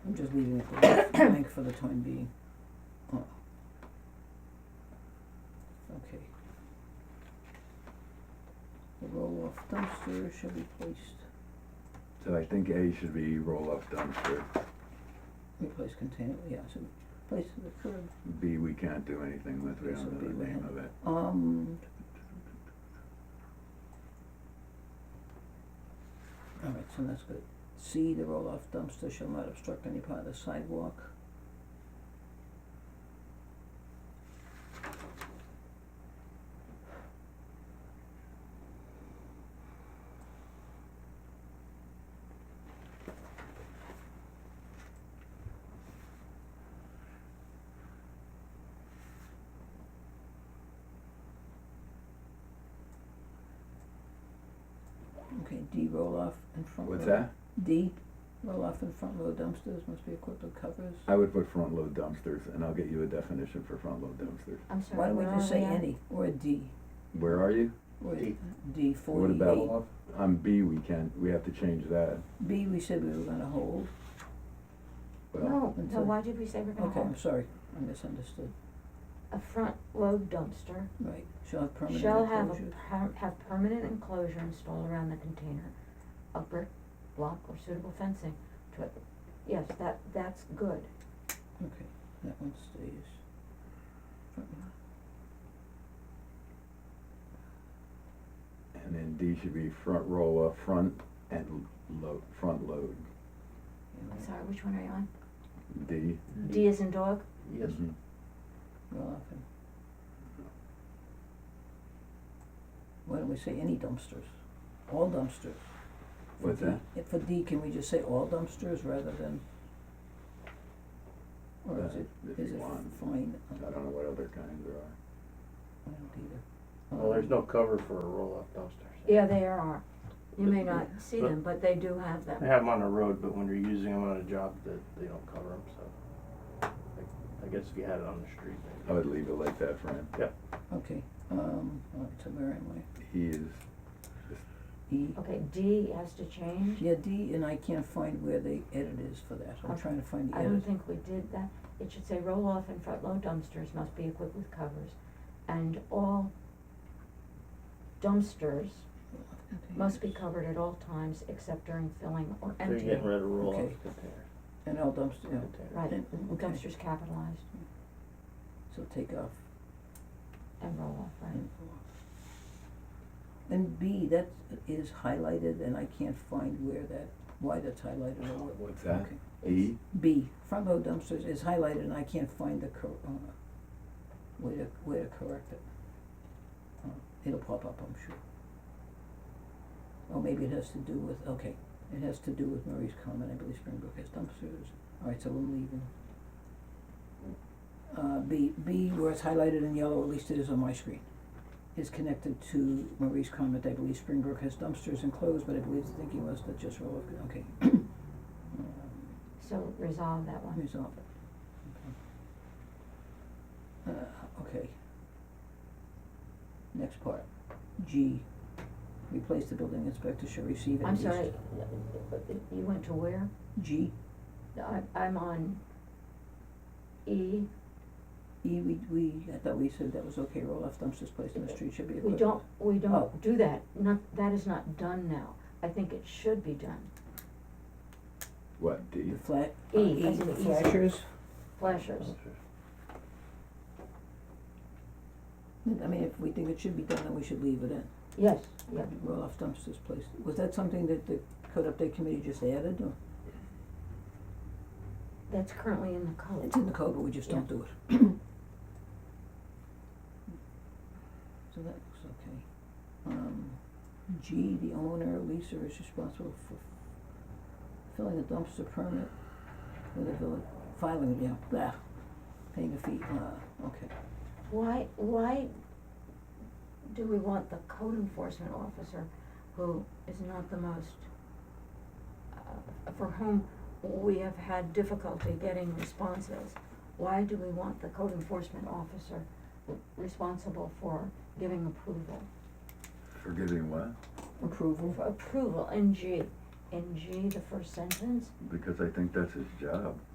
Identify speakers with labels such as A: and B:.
A: I'm just leaving it blank for the time being. Uh, Okay. The roll-off dumpster shall be placed,
B: So I think A should be roll-off dumpster.
A: replace container, yeah, so place to the curb.
B: B, we can't do anything with, we
A: Okay, so
B: don't
A: B
B: know the
A: we
B: name
A: have-
B: of it.
A: Um. Alright, so that's good. C, the roll-off dumpster shall not obstruct any part of the sidewalk. Okay, D, roll-off in front of.
B: What's that?
A: D, roll-off in front load dumpsters must be equipped with covers.
B: I would put front-load dumpsters, and I'll get you a definition for front-load dumpsters.
C: I'm sorry,
A: Why don't we
C: where are
A: just say
C: at?
A: any, or a D,
B: Where are you?
A: or
D: D.
A: D
B: What
A: forty-eight?
B: about, on B, we can't, we have to change that.
A: B, we said we were gonna hold,
B: Well,
C: No, no,
A: Until-
C: why did we say we're gonna
A: okay, I'm
C: have
A: sorry, I misunderstood,
C: a front load dumpster?
A: right, shall have permanent
C: Shall have a
A: enclosure.
C: per- have permanent enclosure installed around the container of brick, block or suitable fencing to it. Yes, that, that's good.
A: Okay, that one stays. Front yard.
B: and then D should be front roll-off, front and load, front load.
A: Yeah,
C: I'm
A: right.
C: sorry, which one are you on?
B: D?
A: Mm-hmm.
C: D is in dog?
D: Yes,
B: Mhm.
A: Well, often. Why don't we say any dumpsters, all dumpsters? For
B: What's
A: D-
B: that?
A: eh, For D, can we just say all dumpsters rather than? Or is
B: Uh,
A: it,
B: if
A: is
B: you
A: it
B: want.
A: fine?
B: I don't know what other kinds there are.
A: I don't either.
D: well, there's
A: Um,
D: no cover for a roll-off dumpster. so-
C: Yeah, they are. You may not see them, but they do have
D: They
C: them.
D: have them on the road, but when you're using them on a job, that they don't cover them, so. I- I guess if you had it on the street,
B: I would
D: maybe.
B: leave it like that, Fran.
A: Okay, um, all right, so where am
B: E is,
A: I? E,
C: Okay, D has to change.
A: yeah, D, and I can't find where the edit is for that, I'm
C: Okay.
A: trying to find the
C: I don't
A: edit.
C: think we did that. It should say roll off and front load dumpsters must be equipped with covers. And all dumpsters must be covered at all times except during filling or
D: They're
C: emptying.
D: getting rid of roll-off
A: Okay.
D: container,
A: And all dumpster, yeah,
D: container.
C: Right,
A: Okay.
C: dumpsters capitalized
A: so take off
C: and roll off, right?
A: and And B, that is highlighted and I can't find where that, why that's highlighted or what.
B: what's
D: Uh,
B: that?
A: Okay.
B: E?
A: B, front load dumpsters is highlighted and I can't find the cor- uh, way to, way to correct it. Uh, It'll pop up, I'm sure. Or maybe it has to do with, okay, it has to do with Marie's comment, I believe Springbrook has dumpsters, alright, so I'm leaving. Uh, B, B where it's highlighted in yellow, at least it is on my screen, is connected to Marie's comment, I believe Springbrook has dumpsters enclosed, but I believe the thinking was that just roll of, okay. Um,
C: So resolve that one.
A: Resolve it. Okay. Uh, okay. Next part, G, replace the building inspector shall receive at
C: I'm
A: least.
C: sorry, you went to where?
A: G,
C: I, I'm on E.
A: E, we, we, I thought we said that was okay, roll off dumpsters placed on the street should be equipped.
C: We don't, we
A: Oh.
C: don't do that. Not, that is not done now. I think it should be done.
B: What, D?
A: The flat,
C: E,
A: uh, E,
C: as in
A: the
C: easy.
A: flashers,
D: Oh.
C: Flashers.
A: I mean, if we think it should be done, then we should leave it in.
C: Yes, yeah.
A: Roll off dumpsters placed, was that something that the code update committee just added, or?
C: That's currently in the code.
A: It's in the code, but we just don't
C: Yeah.
A: do it. So that looks okay. Um, G, the owner, leaser is responsible for filling a dumpster permit with a village, filing, yeah, blah, paying a fee, uh, okay.
C: Why, why do we want the code enforcement officer who is not the most, uh, for whom we have had difficulty getting responses? Why do we want the code enforcement officer responsible for giving approval?
B: Forgetting what?
A: Approval,
C: For approval in G, in G, the first sentence?
B: because I think that's his job.